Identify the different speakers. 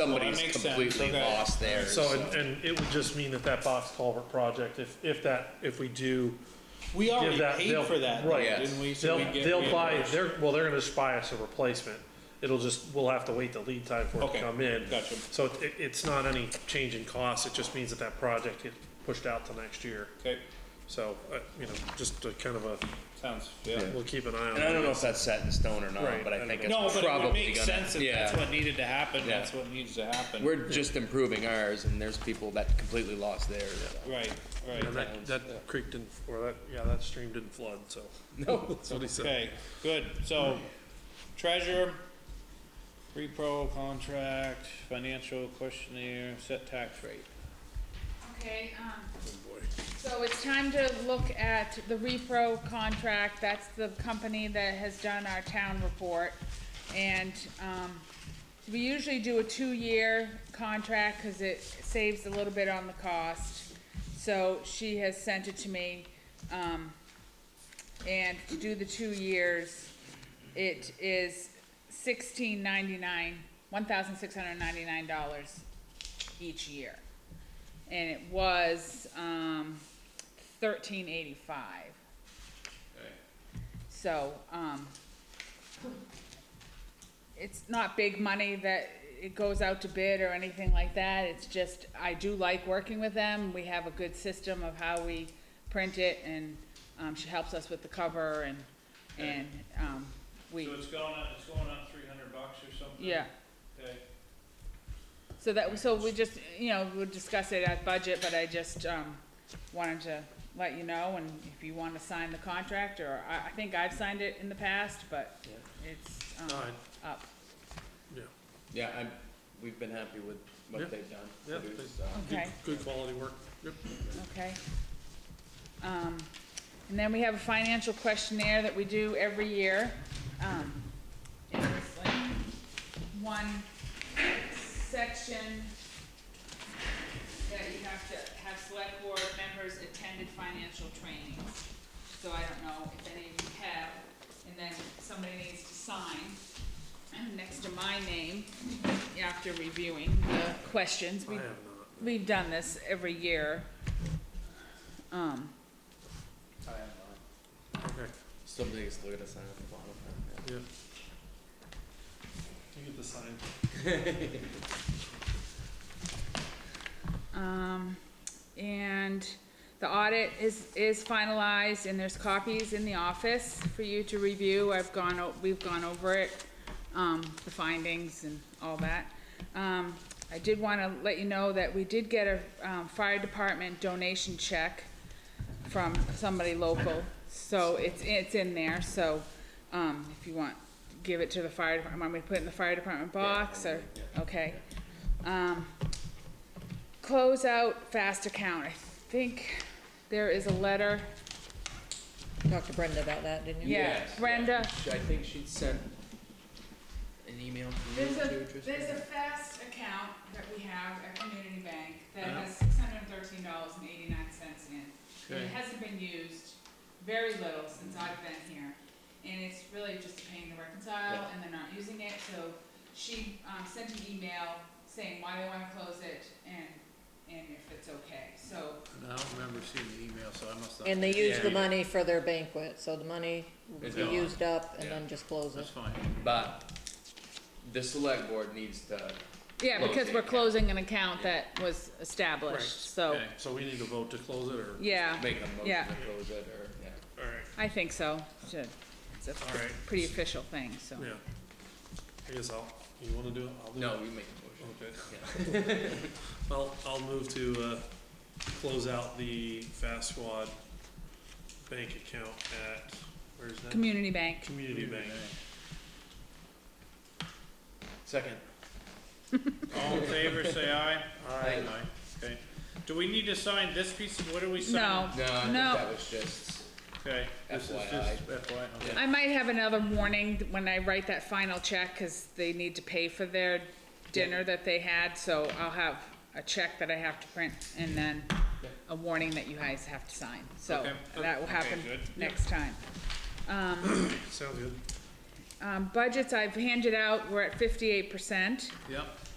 Speaker 1: somebody's
Speaker 2: makes sense,
Speaker 1: completely
Speaker 2: okay.
Speaker 1: lost there.
Speaker 3: So, and, and it would just mean that that box culvert project, if, if that, if we do,
Speaker 2: We already
Speaker 3: that-
Speaker 2: paid
Speaker 3: they'll-
Speaker 2: for that, though,
Speaker 3: right.
Speaker 1: Yes.
Speaker 2: didn't we? So
Speaker 3: they'll,
Speaker 2: we'd get
Speaker 3: they'll buy,
Speaker 2: reimbursed.
Speaker 3: they're, well, they're gonna just buy us a replacement. It'll just, we'll have to wait the lead time for it
Speaker 2: Okay,
Speaker 3: to come in.
Speaker 2: gotcha.
Speaker 3: So it- it, it's not any change in cost, it just means that that project gets pushed out to next year.
Speaker 2: Okay,
Speaker 3: So, uh, you know, just a kind of a,
Speaker 2: sounds, yeah.
Speaker 3: we'll keep an eye on it.
Speaker 1: And I don't know if that's set in stone or
Speaker 3: Right,
Speaker 1: not, but
Speaker 3: I
Speaker 1: I think
Speaker 3: don't
Speaker 1: it's probably
Speaker 2: No, but it
Speaker 1: gonna.
Speaker 2: would make sense if that's
Speaker 1: yeah.
Speaker 2: what needed to happen,
Speaker 1: Yeah.
Speaker 2: that's what needs to happen.
Speaker 1: We're just improving ours and there's people that completely lost theirs.
Speaker 2: Right,
Speaker 3: And
Speaker 2: right.
Speaker 3: that, that creek didn't, or that, yeah, that stream didn't flood, so.
Speaker 1: No.
Speaker 3: That's what he said.
Speaker 2: Okay, good. So treasurer, repro contract, financial questionnaire, set tax rate.
Speaker 4: Okay, um, so it's time to look at the repro contract, that's the company that has done our town report. And, um, we usually do a two-year contract, cause it saves a little bit on the cost. So she has sent it to me, um, and to do the two years, it is sixteen ninety-nine, one thousand six hundred ninety-nine dollars each year and it was um, thirteen eighty five. So um, it's not big money that it goes out to bid or anything like that. It's just I do like working with them. We have a good system of how we print it, and um, she helps us with the cover and and um, we
Speaker 2: So it's going up, it's going up three hundred bucks or something?
Speaker 4: yeah.
Speaker 2: Okay,
Speaker 4: So that, so we just, you know, we'll discuss it at budget, but I just, um, wanted to let you know, and if you wanna sign the contract, or, I, I think I've signed it in the past, but it's, um,
Speaker 3: Alright.
Speaker 4: up.
Speaker 3: Yeah,
Speaker 1: Yeah, I'm, we've been happy with
Speaker 3: Yeah.
Speaker 1: what they've done.
Speaker 3: Yeah,
Speaker 1: produced,
Speaker 3: they-
Speaker 1: uh,
Speaker 3: good,
Speaker 4: Okay.
Speaker 3: good quality work, yep.
Speaker 4: Okay. Um, and then we have a financial questionnaire that we do every year. Um, it's like one section that you have to have select board members attended financial trainings. So I don't know if any of you have, and then somebody needs to sign next to my name after reviewing the questions.
Speaker 3: I
Speaker 4: We
Speaker 3: have not.
Speaker 4: We've done this every year. Um,
Speaker 1: I have, uh,
Speaker 3: Okay,
Speaker 1: Somebody just look at us on the bottom. yeah.
Speaker 3: yeah. You get the sign.
Speaker 4: um, and the audit is, is finalized and there's copies in the office for you to review. I've gone, o- we've gone over it, um, the findings and all that. Um, I did wanna let you know that we did get a, um, fire department donation check from somebody local, so it's, it's in there, so, um, if you want, give it to the fire department, want me to put it in the fire department box or, okay. Um, close out fast account, I think there is a letter,
Speaker 5: talked to Brenda about that, didn't you?
Speaker 4: yeah,
Speaker 1: Yes,
Speaker 4: Brenda,
Speaker 1: She- I think she'd sent an email to you
Speaker 4: There's a,
Speaker 1: too, Tristan.
Speaker 4: there's a fast account that we have at Community Bank that
Speaker 1: Uh-huh.
Speaker 4: has six hundred and thirteen dollars and eighty-nine cents in it. And it
Speaker 1: Okay.
Speaker 4: hasn't been used very little since I've been here, and it's really just a pain to reconcile,
Speaker 1: Yeah.
Speaker 4: and they're not using it, so she, um, sent an email saying why they wanna close it and, and if it's okay, so,
Speaker 6: And I don't remember seeing the email, so I must not.
Speaker 5: And they used the
Speaker 1: Yeah.
Speaker 5: money for their banquet, so the money will
Speaker 1: It's
Speaker 5: be
Speaker 1: gone.
Speaker 5: used up and
Speaker 1: Yeah.
Speaker 5: then just close it.
Speaker 6: That's fine.
Speaker 1: But the select board needs to,
Speaker 4: yeah,
Speaker 1: Close
Speaker 4: because
Speaker 1: the
Speaker 4: we're
Speaker 1: account.
Speaker 4: closing an account that was established, so,
Speaker 6: Okay.
Speaker 3: So we need to vote to close it, or?
Speaker 4: yeah,
Speaker 1: make a motion
Speaker 4: Yeah.
Speaker 1: to close it or, yeah.
Speaker 3: Alright,
Speaker 4: I think so, should, it's a
Speaker 3: Alright.
Speaker 4: pretty official thing, so.
Speaker 3: yeah. I guess I'll, you wanna do it? I'll do it.
Speaker 1: No, we make a motion.
Speaker 3: Okay. Well, I'll move to, uh, close out the Fast Squad bank account at, where's that?
Speaker 4: Community Bank.
Speaker 3: Community Bank.
Speaker 1: Second.
Speaker 2: all in favor, say aye.
Speaker 1: Aye.
Speaker 2: Okay, do we need to sign this piece, what are we
Speaker 4: No,
Speaker 2: signing?
Speaker 1: No, I think
Speaker 4: No.
Speaker 1: that was just,
Speaker 2: Okay, this is
Speaker 1: FYI.
Speaker 2: just FYI, okay.
Speaker 4: I might have another warning when I write that final check, cause they need to pay for their dinner that they had, so I'll have a check that I have to print, and then a warning that you guys have to sign, so
Speaker 2: Okay.
Speaker 4: that will
Speaker 2: Okay,
Speaker 4: happen
Speaker 2: good.
Speaker 4: next time.
Speaker 3: Sounds good.
Speaker 4: Um, budgets I've handed out, we're at fifty-eight percent.
Speaker 6: Yep.